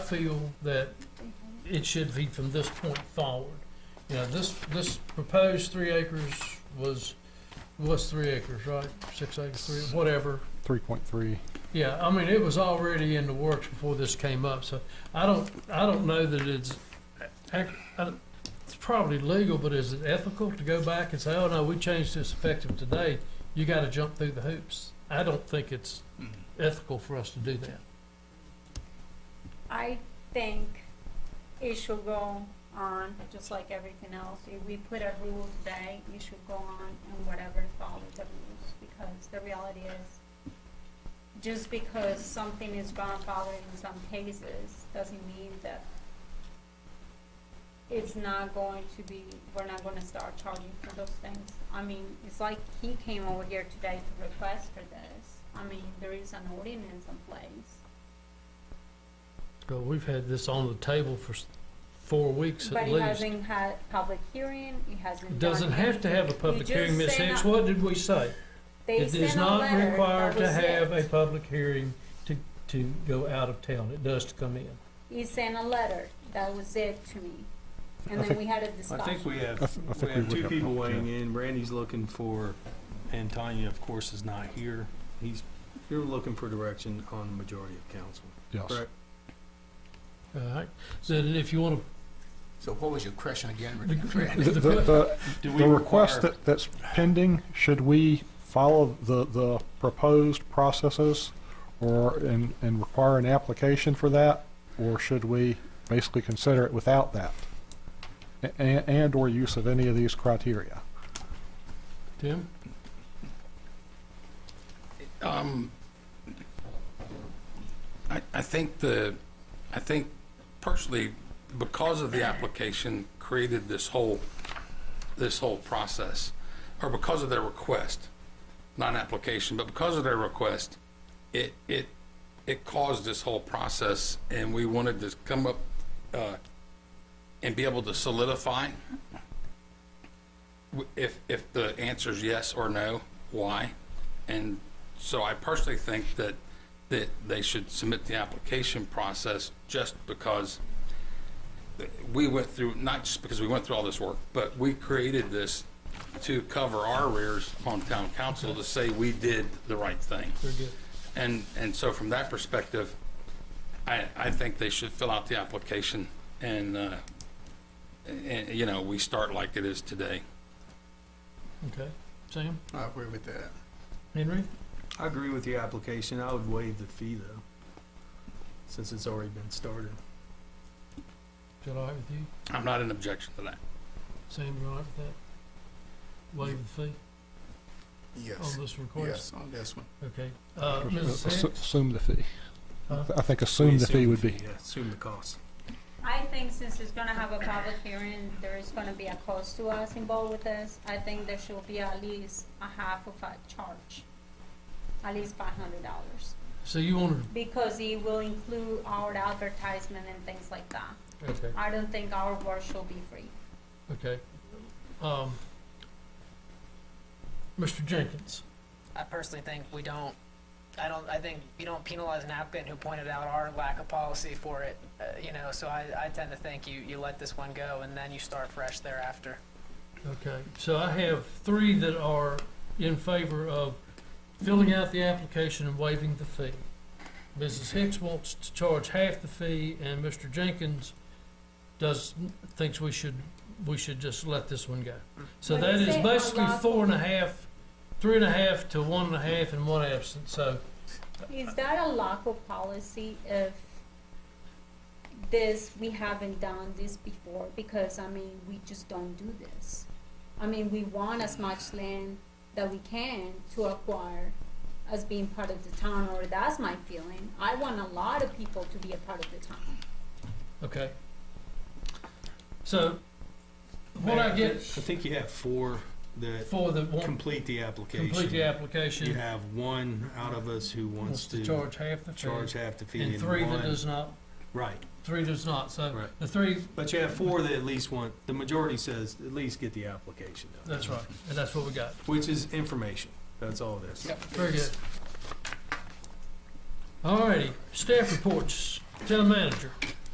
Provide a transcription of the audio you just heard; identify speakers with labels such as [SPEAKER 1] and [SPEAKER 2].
[SPEAKER 1] feel that it should be from this point forward. You know, this, this proposed three acres was, was three acres, right? Six acres, three, whatever.
[SPEAKER 2] Three point three.
[SPEAKER 1] Yeah, I mean, it was already in the works before this came up, so I don't, I don't know that it's, ac- I- it's probably legal, but is it ethical to go back and say, oh, no, we changed this effective today? You gotta jump through the hoops. I don't think it's ethical for us to do that.
[SPEAKER 3] I think it should go on, just like everything else. If we put a rule today, it should go on and whatever follows the rules, because the reality is, just because something is grandfathered in some cases, doesn't mean that it's not going to be, we're not gonna start charging for those things. I mean, it's like he came over here today to request for this. I mean, there is an ordinance in place.
[SPEAKER 1] So we've had this on the table for s- four weeks
[SPEAKER 3] But
[SPEAKER 1] at
[SPEAKER 3] he
[SPEAKER 1] least.
[SPEAKER 3] hasn't had public hearing, he hasn't.
[SPEAKER 1] Doesn't
[SPEAKER 3] done
[SPEAKER 1] have to
[SPEAKER 3] anything.
[SPEAKER 1] have a public
[SPEAKER 3] just
[SPEAKER 1] hearing, Ms.
[SPEAKER 3] sent
[SPEAKER 1] Hicks,
[SPEAKER 3] a-
[SPEAKER 1] what did we say?
[SPEAKER 3] They
[SPEAKER 1] It is
[SPEAKER 3] sent a
[SPEAKER 1] not
[SPEAKER 3] letter,
[SPEAKER 1] required
[SPEAKER 3] that
[SPEAKER 1] to
[SPEAKER 3] was
[SPEAKER 1] have a
[SPEAKER 3] it.
[SPEAKER 1] public hearing to, to go out of town, it does to come in.
[SPEAKER 3] He sent a letter, that was it to me.
[SPEAKER 2] I
[SPEAKER 3] And then
[SPEAKER 2] think-
[SPEAKER 3] we had a
[SPEAKER 4] I think
[SPEAKER 3] discussion.
[SPEAKER 4] we
[SPEAKER 2] I
[SPEAKER 4] have,
[SPEAKER 2] th- I
[SPEAKER 4] we
[SPEAKER 2] think we
[SPEAKER 4] have
[SPEAKER 2] would
[SPEAKER 4] two
[SPEAKER 2] have
[SPEAKER 4] people
[SPEAKER 2] helped, yeah.
[SPEAKER 4] weighing in. Randy's looking for, and Tanya, of course, is not here. He's, you're looking for direction on the majority of council.
[SPEAKER 2] Yes.
[SPEAKER 4] Correct.
[SPEAKER 1] All right, so then if you wanna
[SPEAKER 5] So what was your question again?
[SPEAKER 1] The-
[SPEAKER 5] Rick?
[SPEAKER 2] The, the, the,
[SPEAKER 4] Do we
[SPEAKER 2] the request
[SPEAKER 4] require-
[SPEAKER 2] that, that's pending, should we follow the, the proposed processes or, and, and require an application for that? Or should we basically consider it without that? And, and or use of any of these criteria?
[SPEAKER 1] Tim?
[SPEAKER 5] Um, I, I think the, I think personally, because of the application created this whole, this whole process, or because of their request, not an application, but because of their request, it, it, it caused this whole process, and we wanted to come up, uh, and be able to solidify w- if, if the answer's yes or no, why? And so I personally think that, that they should submit the application process just because we went through, not just because we went through all this work, but we created this to cover our rears on town council to say we did the right thing.
[SPEAKER 1] Very good.
[SPEAKER 5] And, and so from that perspective, I, I think they should fill out the application and, uh, and, you know, we start like it is today.
[SPEAKER 1] Okay, Sam,
[SPEAKER 6] I agree with that.
[SPEAKER 1] Henry?
[SPEAKER 4] I agree with the application. I would waive the fee though, since it's already been started.
[SPEAKER 1] Is that all right with you?
[SPEAKER 5] I'm not in objection to that.
[SPEAKER 1] Sam, you all right with that? Waive the fee
[SPEAKER 6] Yes,
[SPEAKER 1] on this request?
[SPEAKER 6] yes, on this one.
[SPEAKER 1] Okay, uh, Mrs.
[SPEAKER 2] Assu-
[SPEAKER 1] Hicks?
[SPEAKER 2] Assume the fee.
[SPEAKER 1] Huh?
[SPEAKER 2] I think
[SPEAKER 4] We
[SPEAKER 2] assume the fee would be.
[SPEAKER 4] yeah, Assume the cost.
[SPEAKER 3] I think since it's gonna have a public hearing, there is gonna be a cost to us involved with this. I think there should be at least a half of a charge, at least five hundred dollars.
[SPEAKER 1] So you wanna,
[SPEAKER 3] Because it will include our advertisement and things like that.
[SPEAKER 1] okay,
[SPEAKER 3] I don't think our work should be free.
[SPEAKER 1] okay. Um, Mr. Jenkins,
[SPEAKER 7] I personally think we don't, I don't, I think you don't penalize an applicant who pointed out our lack of policy for it, uh, you know, so I, I tend to think you, you let this one go and then you start fresh thereafter.
[SPEAKER 1] okay, so I have three that are in favor of filling out the application and waiving the fee. Mrs. Hicks wants to charge half the fee, and Mr. Jenkins does, thinks we should, we should just let this one go. So
[SPEAKER 3] When you
[SPEAKER 1] that is
[SPEAKER 3] say
[SPEAKER 1] basically
[SPEAKER 3] unlawful-
[SPEAKER 1] four and a half, three and a half to one and a half and one absent, so,
[SPEAKER 3] Is that a local policy if this, we haven't done this before, because, I mean, we just don't do this. I mean, we want as much land that we can to acquire as being part of the town, or that's my feeling. I want a lot of people to be a part of the town.
[SPEAKER 1] okay. So, what I get
[SPEAKER 4] Mayor, I think you have four that
[SPEAKER 1] for the, one
[SPEAKER 4] complete the application.
[SPEAKER 1] complete the
[SPEAKER 4] You
[SPEAKER 1] application,
[SPEAKER 4] have one out of us who
[SPEAKER 1] wants
[SPEAKER 4] wants
[SPEAKER 1] to
[SPEAKER 4] to
[SPEAKER 1] charge half the
[SPEAKER 4] charge
[SPEAKER 1] fee,
[SPEAKER 4] half the fee
[SPEAKER 1] and
[SPEAKER 4] and
[SPEAKER 1] three that
[SPEAKER 4] one-
[SPEAKER 1] does not,
[SPEAKER 4] Right.
[SPEAKER 1] three does not, so,
[SPEAKER 4] Right.
[SPEAKER 1] the three,
[SPEAKER 4] But you have four that at least want, the majority says at least get the application done.
[SPEAKER 1] that's right, and that's what we got.
[SPEAKER 4] Which is information. That's all it is.
[SPEAKER 1] Very good. All righty, staff reports, town manager.